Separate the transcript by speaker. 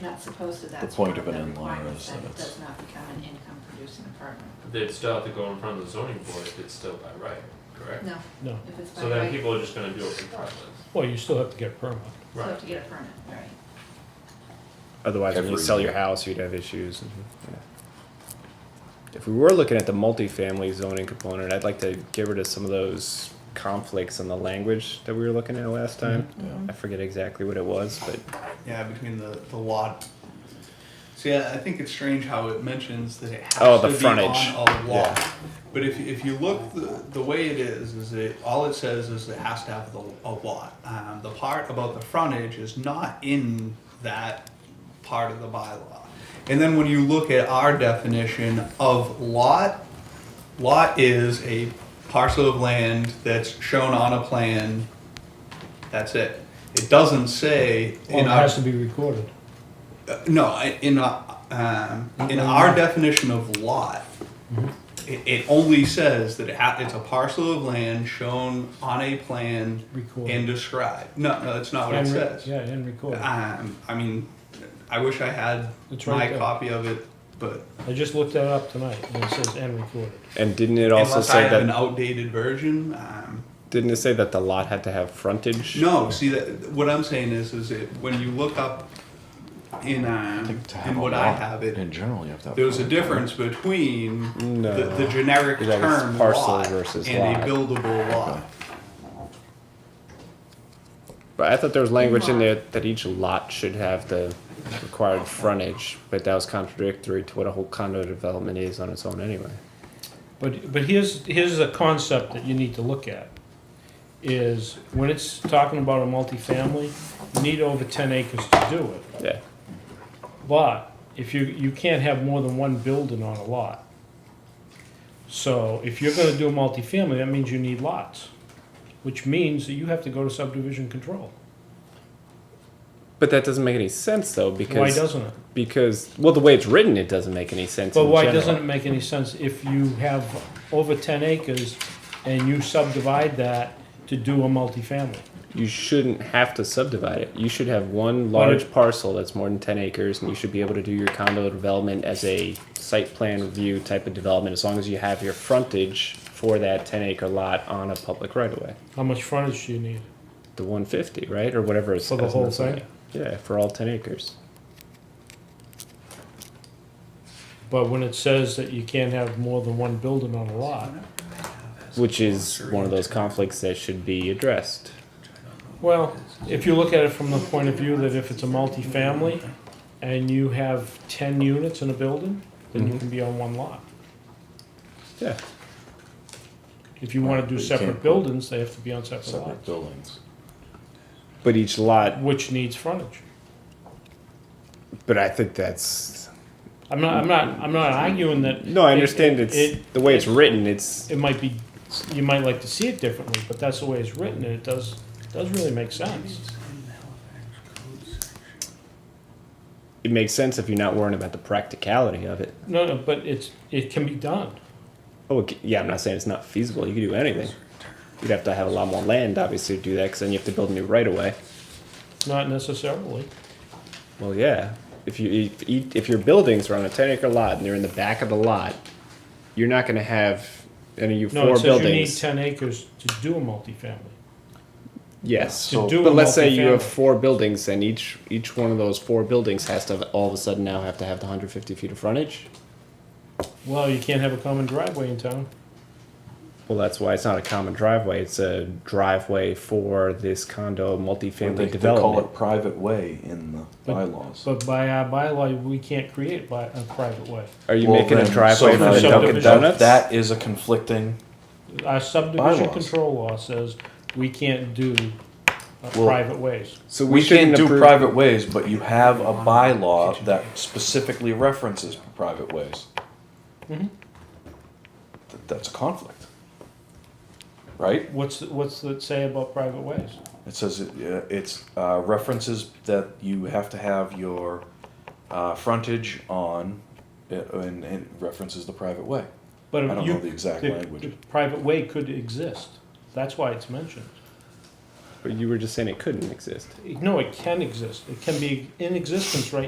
Speaker 1: not supposed to, that's.
Speaker 2: The point of
Speaker 1: one
Speaker 2: an
Speaker 1: the
Speaker 2: in-law
Speaker 1: requirements,
Speaker 2: is
Speaker 1: that
Speaker 2: that
Speaker 1: it
Speaker 2: it's-
Speaker 1: does not become an income producing apartment.
Speaker 3: They'd still have to go in front of the zoning board if it's still by right, correct?
Speaker 1: No,
Speaker 4: No,
Speaker 1: if it's by
Speaker 3: So then
Speaker 1: right,
Speaker 3: people are just gonna do it regardless.
Speaker 4: well, you still have to get a permit.
Speaker 1: you have
Speaker 3: Right.
Speaker 1: to get a permit, right.
Speaker 5: Otherwise, when you
Speaker 2: Every
Speaker 5: sell your
Speaker 2: year.
Speaker 5: house, you'd have issues. and- yeah. If we were looking at the multifamily zoning component, I'd like to get rid of some of those conflicts in the language that we were looking at last time. I forget exactly what it was, but
Speaker 6: Yeah, between the, the lot. So yeah, I think it's strange how it mentions that it has
Speaker 5: Oh, the
Speaker 6: to
Speaker 5: frontage.
Speaker 6: be on a lot.
Speaker 5: Yeah.
Speaker 6: But if, if you look, the, the way it is, is it, all it says is it has to have the, a lot. Um, the part about the frontage is not in that part of the bylaw. And then when you look at our definition of lot, lot is a parcel of land that's shown on a plan. That's it. It doesn't say
Speaker 4: Well,
Speaker 6: in
Speaker 4: it
Speaker 6: our.
Speaker 4: has to be recorded.
Speaker 6: Uh, no, I- in uh, um, in our definition of lot,
Speaker 4: Mm-hmm.
Speaker 6: it, it only says that it ha- it's a parcel of land shown on a plan
Speaker 4: Recorded.
Speaker 6: and described. No, no, that's not what it
Speaker 4: And re-
Speaker 6: says.
Speaker 4: Yeah, and recorded.
Speaker 6: Um, I mean, I wish I had
Speaker 4: It's right
Speaker 6: my
Speaker 4: there.
Speaker 6: copy of it, but
Speaker 4: I just looked that up tonight, and it says and recorded.
Speaker 5: and didn't it also
Speaker 6: unless I
Speaker 5: say
Speaker 6: have an
Speaker 5: that
Speaker 6: outdated version, um,
Speaker 5: didn't it say that the lot had to have frontage?
Speaker 6: No, see that what I'm saying is, is it when you look up in um,
Speaker 2: To have
Speaker 6: in
Speaker 2: a
Speaker 6: what I
Speaker 2: lot,
Speaker 6: have it,
Speaker 2: In general, you have to have.
Speaker 6: there's a
Speaker 2: frontage.
Speaker 6: difference between
Speaker 5: No.
Speaker 6: the, the generic
Speaker 5: Is that it's
Speaker 6: term
Speaker 5: parcel
Speaker 6: lot
Speaker 5: versus
Speaker 6: and
Speaker 5: lot.
Speaker 6: a buildable lot.
Speaker 5: But I thought there was language in there that each lot should have the required frontage, but that was contradictory to what a whole condo development is on its own anyway.
Speaker 4: But, but here's, here's a concept that you need to look at, is when it's talking about a multifamily, you need over ten acres to do it.
Speaker 5: Yeah.
Speaker 4: But if you, you can't have more than one building on a lot. So if you're gonna do a multifamily, that means you need lots, which means that you have to go to subdivision control.
Speaker 5: But that doesn't make any sense though because
Speaker 4: Why doesn't it?
Speaker 5: because well the way it's written it doesn't make any sense.
Speaker 4: But
Speaker 5: in
Speaker 4: why
Speaker 5: general.
Speaker 4: doesn't it make any sense if you have over ten acres and you subdivide that to do a multifamily?
Speaker 5: you shouldn't have to subdivide it. You should have one
Speaker 4: Why
Speaker 5: large
Speaker 4: did-
Speaker 5: parcel that's more than ten acres, and you should be able to do your condo development as a site plan review type of development, as long as you have your frontage for that ten acre lot on a public right of way.
Speaker 4: How much frontage do you need?
Speaker 5: The one fifty, right, or whatever it's
Speaker 4: For the whole thing?
Speaker 5: Yeah, for all ten acres.
Speaker 4: But when it says that you can't have more than one building on a lot,
Speaker 5: Which is one of those conflicts that should be addressed.
Speaker 4: well, if you look at it from the point of view that if it's a multifamily and you have ten units in a building, then you
Speaker 5: Mhm.
Speaker 4: can be on one lot.
Speaker 5: Yeah.
Speaker 4: If you
Speaker 2: Right,
Speaker 4: wanna
Speaker 2: but
Speaker 4: do
Speaker 2: you
Speaker 4: separate
Speaker 2: can't-
Speaker 4: buildings, they have to be on separate
Speaker 2: Separate
Speaker 4: lots,
Speaker 2: buildings.
Speaker 5: But each lot
Speaker 4: which needs frontage.
Speaker 5: but I think that's
Speaker 4: I'm not, I'm not, I'm not arguing that.
Speaker 5: no, I
Speaker 4: it-
Speaker 5: understand
Speaker 4: it-
Speaker 5: it's
Speaker 4: it-
Speaker 5: the way it's written, it's
Speaker 4: it might be, you might like to see it differently, but that's the way it's written, and it does, does really make sense.
Speaker 5: it makes sense if you're not worrying about the practicality of it.
Speaker 4: No, no, but it's, it can be done.
Speaker 5: Oh, it c- yeah, I'm not saying it's not feasible. You could do anything. You'd have to have a lot more land, obviously, to do that, because then you have to build a new right of way.
Speaker 4: Not necessarily.
Speaker 5: Well, yeah. If you if, you- if your buildings are on a 10 acre lot and they're in the back of the lot, you're not going to have any of your
Speaker 4: No, it
Speaker 5: four
Speaker 4: says you need
Speaker 5: buildings.
Speaker 4: ten acres to do a multifamily.
Speaker 5: yes.
Speaker 4: to do a
Speaker 5: but let's say you have
Speaker 4: multifamily.
Speaker 5: four buildings, and each each one of those four buildings has to have, all of a sudden now have to have the 150 feet of frontage.
Speaker 4: Well, you can't have a common driveway in town.
Speaker 5: Well, that's why it's not a common driveway. It's a driveway for this condo multifamily
Speaker 2: They, they
Speaker 5: development.
Speaker 2: call it private way in the
Speaker 4: But-
Speaker 2: bylaws.
Speaker 4: But by our bylaw, we can't create by a private way.
Speaker 5: Are you
Speaker 2: Well,
Speaker 5: making
Speaker 2: then,
Speaker 5: a driveway
Speaker 2: so
Speaker 5: for the
Speaker 2: then
Speaker 5: Dunkin'
Speaker 4: subdivision-
Speaker 5: Donuts?
Speaker 2: That is a conflicting,
Speaker 4: Our subdivision
Speaker 2: Bylaws.
Speaker 4: control law says we can't do uh,
Speaker 2: Well-
Speaker 4: private ways.
Speaker 5: so
Speaker 2: we can't
Speaker 5: shouldn't
Speaker 2: do
Speaker 5: approve-
Speaker 2: private ways, but you have a bylaw that specifically references private ways.
Speaker 6: Mm-hmm.
Speaker 4: Mhm.
Speaker 2: Th- That's a conflict. Right?
Speaker 4: What's, what's it say about private ways?
Speaker 2: It says it, uh, it's uh, references that you have to have your uh, frontage on, uh, and, and it references the private way.
Speaker 4: But
Speaker 2: I don't
Speaker 4: you-
Speaker 2: know the exact language.
Speaker 4: the Private way could exist. That's why it's mentioned.
Speaker 5: But you were just saying it couldn't exist.
Speaker 4: No, it can exist. It can be in existence right